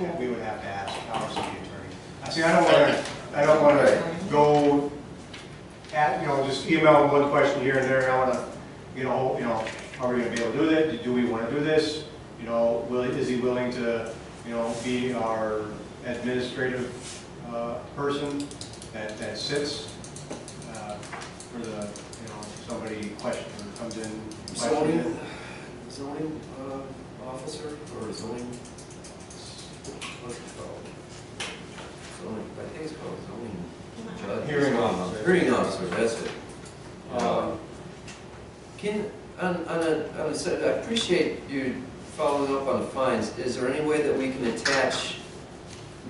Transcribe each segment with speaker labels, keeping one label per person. Speaker 1: that we would have to ask, obviously, the attorney. I See, I don't wanna, I don't
Speaker 2: Right.
Speaker 1: wanna go at, you know, just email one question here and there, I wanna, you know, you know, are we gonna be able to do that? Do we wanna do this? You know, will, is he willing to, you know, be our administrative, uh, person that, that sits, uh, for the, you know, somebody question or comes in.
Speaker 2: Zoning, zoning uh, officer or zoning? What's it called? Zoning, I think it's called zoning judge.
Speaker 1: Hearing officer.
Speaker 2: Hearing officer, that's it.
Speaker 1: Um,
Speaker 2: Can, on, on a, on a, side- I appreciate you following up on the fines. Is there any way that we can attach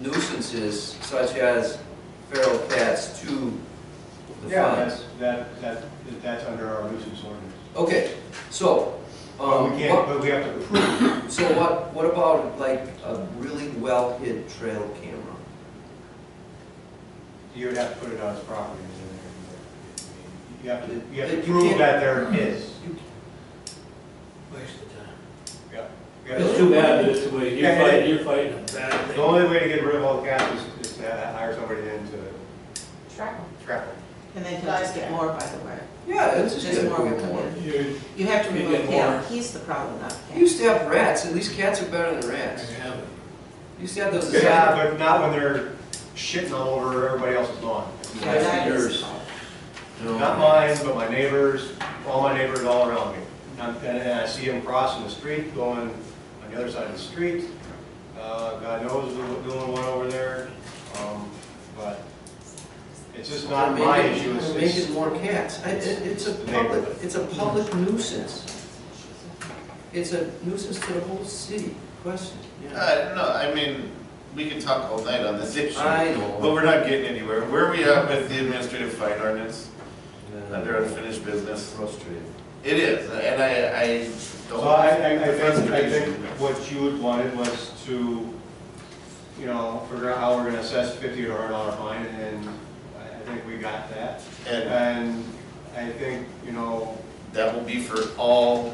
Speaker 2: nuisances such as feral cats to the
Speaker 1: Yeah,
Speaker 2: fines?
Speaker 1: that's, that, that, that's under our nuisance ordinance.
Speaker 2: Okay, so,
Speaker 1: But
Speaker 2: um,
Speaker 1: we
Speaker 2: what-
Speaker 1: can't, but we have to prove.
Speaker 2: So what, what about like a really well-hid trail camera?
Speaker 1: you would have to put it on his property. and then You have to, you have
Speaker 2: You
Speaker 1: to prove
Speaker 2: can't-
Speaker 1: that they're his.
Speaker 3: Waste of time.
Speaker 1: Yeah. Yeah.
Speaker 3: It's too bad that it's the way, you're
Speaker 1: Yeah, yeah.
Speaker 3: fighting, you're fighting a bad
Speaker 1: The
Speaker 3: thing.
Speaker 1: only way to get rid of all the cats is, is to hire somebody in to
Speaker 4: Track 'em.
Speaker 1: trap them.
Speaker 5: And then he'll just get more, by the way.
Speaker 2: Yeah, it's just.
Speaker 5: Just more will come in.
Speaker 3: You
Speaker 5: You have to
Speaker 3: You
Speaker 5: remove
Speaker 3: get
Speaker 5: him, he's the problem, not the
Speaker 2: You
Speaker 5: cat.
Speaker 2: used to have rats, at least cats are better than
Speaker 3: can
Speaker 2: rats.
Speaker 3: have it.
Speaker 2: You used to have those. uh,
Speaker 1: Yeah, but not when they're shitting all over everybody else's lawn.
Speaker 5: Yeah, that is the
Speaker 2: yours.
Speaker 5: problem.
Speaker 2: No.
Speaker 1: Not mine, but my neighbors, all my neighbors all around me. And, and I see them crossing the street, going on the other side of the street. Uh, God knows who- doing one over there, um, but it's just not
Speaker 2: They're
Speaker 1: my
Speaker 2: making-
Speaker 1: issue, it's,
Speaker 2: they're
Speaker 1: it's,
Speaker 2: Making more cats. I- it- It's a
Speaker 1: The
Speaker 2: public,
Speaker 1: neighborhood.
Speaker 2: it's a public nuisance. It's a nuisance to the whole city, question, yeah.
Speaker 6: Uh, no, I mean, we can talk all night on this issue,
Speaker 2: I
Speaker 6: but
Speaker 2: know.
Speaker 6: we're not getting anywhere. Where are we at with the administrative fine ordinance
Speaker 2: Yeah.
Speaker 6: under unfinished business?
Speaker 2: Frustrated.
Speaker 6: It is, and I, I
Speaker 1: so
Speaker 6: don't.
Speaker 1: I, I, I think, I think
Speaker 6: Frustration.
Speaker 1: what you would wanted was to, you know, figure out how we're gonna assess fifty or a hundred dollar fine, and I I think we got that.
Speaker 6: And
Speaker 1: And I think, you know,
Speaker 6: that will be for all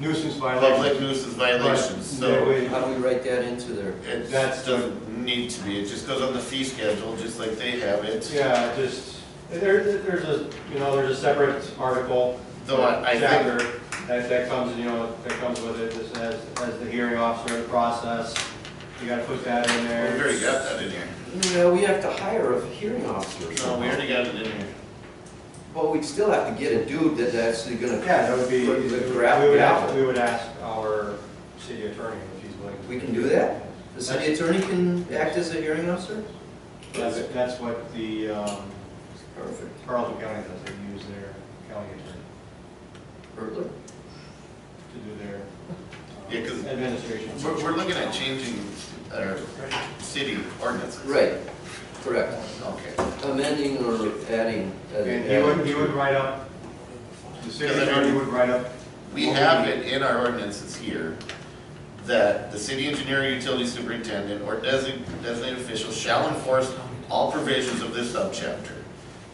Speaker 1: nuisance
Speaker 6: public
Speaker 1: violations.
Speaker 6: nuisance
Speaker 1: but
Speaker 6: violations,
Speaker 1: they
Speaker 6: so
Speaker 1: would-
Speaker 2: How do we write that into there?
Speaker 6: it
Speaker 1: That's the-
Speaker 6: doesn't need to be. It just goes on the fee schedule, just like they have it.
Speaker 1: Yeah, just, there, there's a, you know, there's a separate article.
Speaker 6: Though I, I think
Speaker 1: chapter That, that comes, you know, that comes with it, that says, as the hearing officer, the process, you gotta put that in
Speaker 6: we
Speaker 1: there.
Speaker 6: already got that in here.
Speaker 2: No, we have to hire a hearing officer.
Speaker 6: No, we already got it in here.
Speaker 2: Well, we'd still have to get a dude that's actually gonna.
Speaker 1: Yeah, that would be, we
Speaker 2: Put the
Speaker 1: would
Speaker 2: crap
Speaker 1: ask,
Speaker 2: out.
Speaker 1: we would ask our city attorney if he's willing. to-
Speaker 2: We can do that? The city attorney can act as a hearing officer?
Speaker 1: That's, that's what the, um,
Speaker 2: Perfect.
Speaker 1: Carlton County does, they use their county attorney
Speaker 2: Perfect.
Speaker 1: to do their um,
Speaker 6: Yeah, 'cause
Speaker 1: administration.
Speaker 6: We're, we're looking at changing our city ordinances.
Speaker 2: Right, correct.
Speaker 6: Okay.
Speaker 2: Amending or adding. uh,
Speaker 1: And he would, he would write up, the city attorney would write up.
Speaker 6: We have it in our ordinances here that the city engineer, utility superintendent, or design- designated official shall enforce all provisions of this subchapter.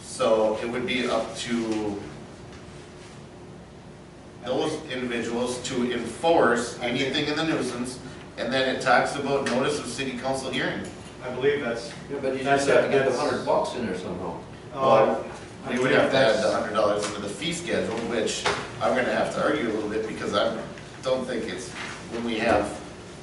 Speaker 6: So it would be up to those individuals to enforce anything in the nuisance, and then it talks about notice of city council hearing.
Speaker 1: I believe that's,
Speaker 2: Yeah, But you just have to get the hundred bucks in there somehow.
Speaker 1: uh,
Speaker 6: We would have to add the hundred dollars into the fee schedule, which I'm gonna have to argue a little bit because I don't think it's, when we have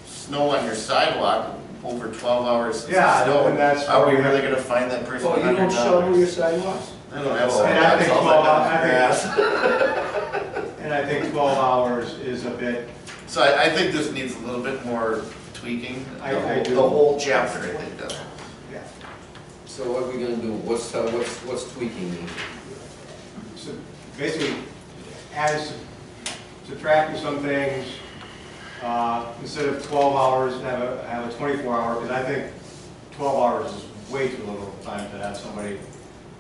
Speaker 6: snow on your sidewalk over twelve hours. since
Speaker 1: Yeah,
Speaker 6: snow,
Speaker 1: and that's
Speaker 6: Are we
Speaker 1: where we-
Speaker 6: really gonna find that person
Speaker 2: Oh, you
Speaker 6: hundred
Speaker 2: don't shovel your
Speaker 6: dollars?
Speaker 2: sidewalks?
Speaker 6: I don't have
Speaker 1: And I
Speaker 6: sidewalks,
Speaker 1: think
Speaker 6: all
Speaker 1: twelve,
Speaker 6: I
Speaker 1: I
Speaker 6: got is grass.
Speaker 1: think, and I think twelve hours is a bit,
Speaker 6: So I, I think this needs a little bit more tweaking, the
Speaker 1: I- I
Speaker 6: whole,
Speaker 1: do.
Speaker 6: the whole chapter, I think, does.
Speaker 1: yeah.
Speaker 2: So what are we gonna do? What's, uh, what's, what's tweaking mean?
Speaker 1: So basically, as subtracting some things, uh, instead of twelve hours, have a, have a twenty-four hour, because I think twelve hours is way too little time to have somebody,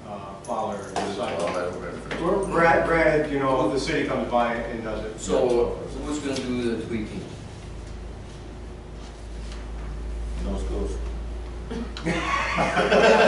Speaker 1: uh, follow or
Speaker 6: Well,
Speaker 1: decide.
Speaker 6: I don't remember.
Speaker 1: Granted, granted, you know, the city comes by and does it.
Speaker 2: So who's gonna do the tweaking?
Speaker 6: No schools.